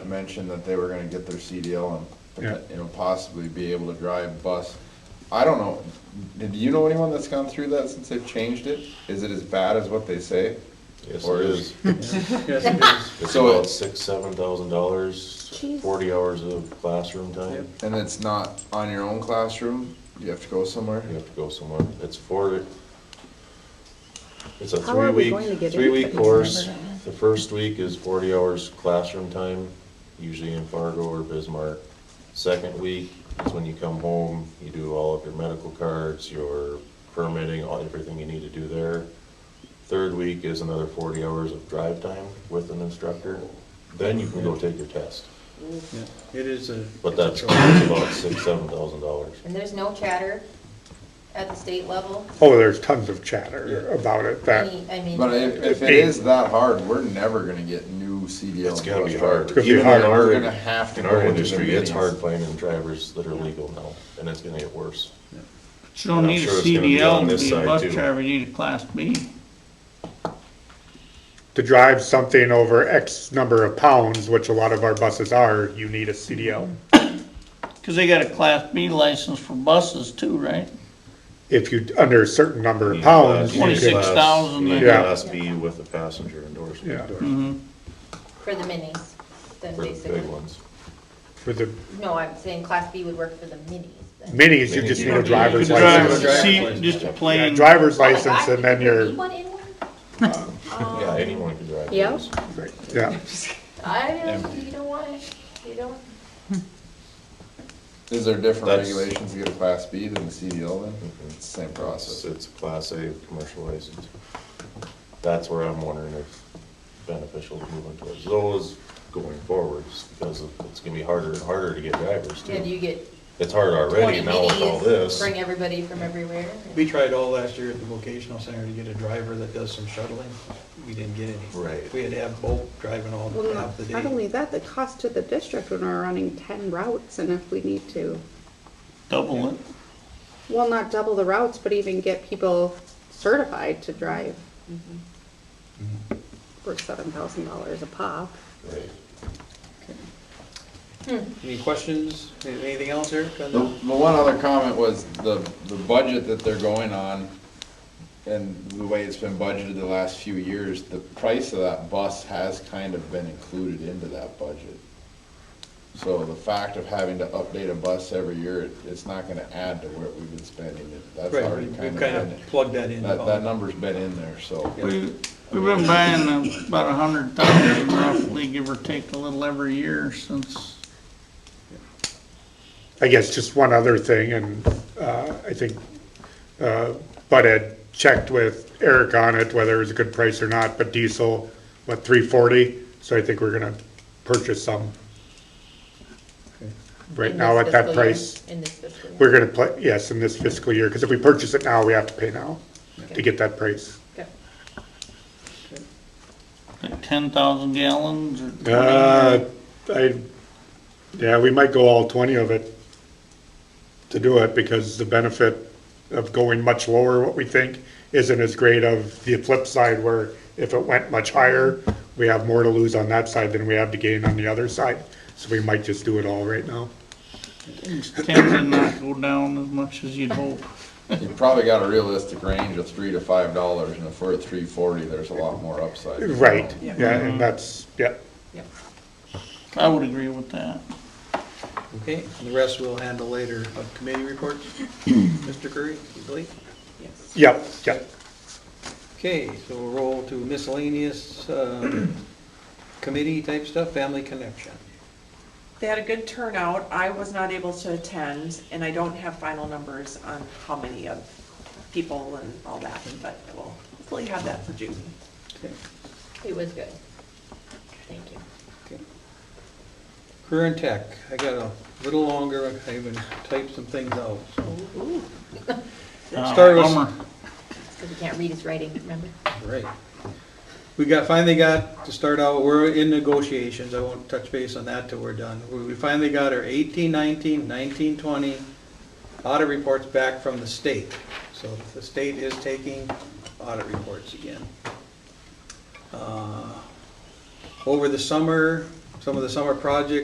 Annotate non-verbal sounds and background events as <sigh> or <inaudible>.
mentioned that they were gonna get their CDL Yeah. and, you know, possibly be able to drive bus. I don't know, do you know anyone that's gone through that since they've changed it? Is it as bad as what they say? Yes, Or it is- is. Hmm. Yes, it is. It's So about it- six, seven thousand dollars, Jeez. forty hours of classroom time. And it's not on your own classroom, you have to go somewhere? You have to go somewhere. It's four, it's a How are we three-week, going to get three-week anything? course. The first week is forty hours classroom time, usually in Fargo or Bismarck. Second week is when you come home, you do all of your medical cards, your permitting, all, everything you need to do there. Third week is another forty hours of drive time with an instructor. Then you can go take your test. Yeah, It is a. But it's that's a trial. it's about six, seven thousand dollars. And there's no chatter at the state level? Oh, there's tons of chatter about it, that, Any- I mean, But if, if it is that hard, we're never gonna get new CDL. It's gonna bus be drivers. hard. Could be Even in hard. our- We're gonna have to In go our into the industry, it's minis. hard finding drivers that are legal now, and it's gonna get worse. You don't And I'm need a sure it's gonna be on CDL to this be a side, bus too. driver, you need a class B. to drive something over X number of pounds, which a lot of our buses are, you need a Mm-hmm. CDL. Cause they got a class B license for buses too, right? If you, under a certain number of pounds, you Twenty-six could, Class- thousand You need there. Class B with a passenger endorsement. yeah, for the minis, then For the big basically. ones. for the No, I'm saying class B would work for the minis. then. minis, you just need a driver's You could drive license. Driver's see, license. Just a Yeah, plain, Driver's Oh my license God, and then we you're, need one in one? Yeah, anyone can drive Yeah. those. yeah, I, don't- you don't want it, you don't. Is there different That's- regulations to get a class B than the CDL then? It's the same It's, process. it's a class A commercial license. That's where I'm wondering if beneficial to moving towards those going forwards, because it's gonna be harder and harder to get drivers Then you too. get It's hard already twenty now with all minis, this. bring everybody from everywhere. We tried all last year at the vocational center to get a driver that does some shuttling. We didn't get any. Right. We had to have both driving all Well, half not- the not day. only that, the cost to the district when we're running ten routes and if we need to, double it. well, not double the routes, but even get people certified to drive. For seven thousand dollars a pop. Right. Any questions? Anything else, Eric? on The, that? the one other comment was the, the budget that they're going on and the way it's been budgeted the last few years, the price of that bus has kind of been included into that budget. So the fact of having to update a bus every year, it- it's not gonna add to what we've been spending. It- That's Right, we- already we've kind kind of, been- of plugged that in. that, that number's been in there, so. We, we've been buying uh, about a hundred thousand roughly, give or take a little every year since I guess just one other thing, and, uh, I think, uh, Bud had checked with Eric on it, whether it was a good price or not, but diesel, what, three forty? So I think we're gonna purchase some Okay. right in now this at that fiscal year, price. In this fiscal year. We're gonna play, yes, in this fiscal year, because if we purchase it now, we have to pay now to Okay. get that price. Okay. like ten thousand gallons or twenty. Uh, I, yeah, we might go all twenty of it to do it, because the benefit of going much lower, what we think, isn't as great of the flip side, where if it went much higher, we have more to lose on that side than we have to gain on the other side, so we might just do it all right now. It's tending to not go down as much as you'd hope. You probably got a realistic range of three to five dollars, and if we're at three forty, there's a lot more upside. Right, yeah, and that's, yeah, I would agree with that. Okay, and the rest we'll handle later. Uh, <clears throat> Committee reports? Mr. Curry, you believe? yeah, yeah. Okay, so we'll roll to <clears throat> miscellaneous um, committee type stuff, Family Connection. They had a good turnout. I was not able to attend, and I don't have final numbers on how many of people and all that, but I will hopefully have that for June. Okay. It was good. Thank you. Okay. Career and Tech, I got a little longer, I even typed some things out, so. Uh, Start with- bummer. Because we can't read his writing, remember? Right. We got, finally got, to start out, we're in negotiations, I won't touch base on that till we're done. We we finally got our 18, 19, 19, 20 audit reports back from the state. So the state is taking audit reports again. Uh, Over the summer, some of the summer projects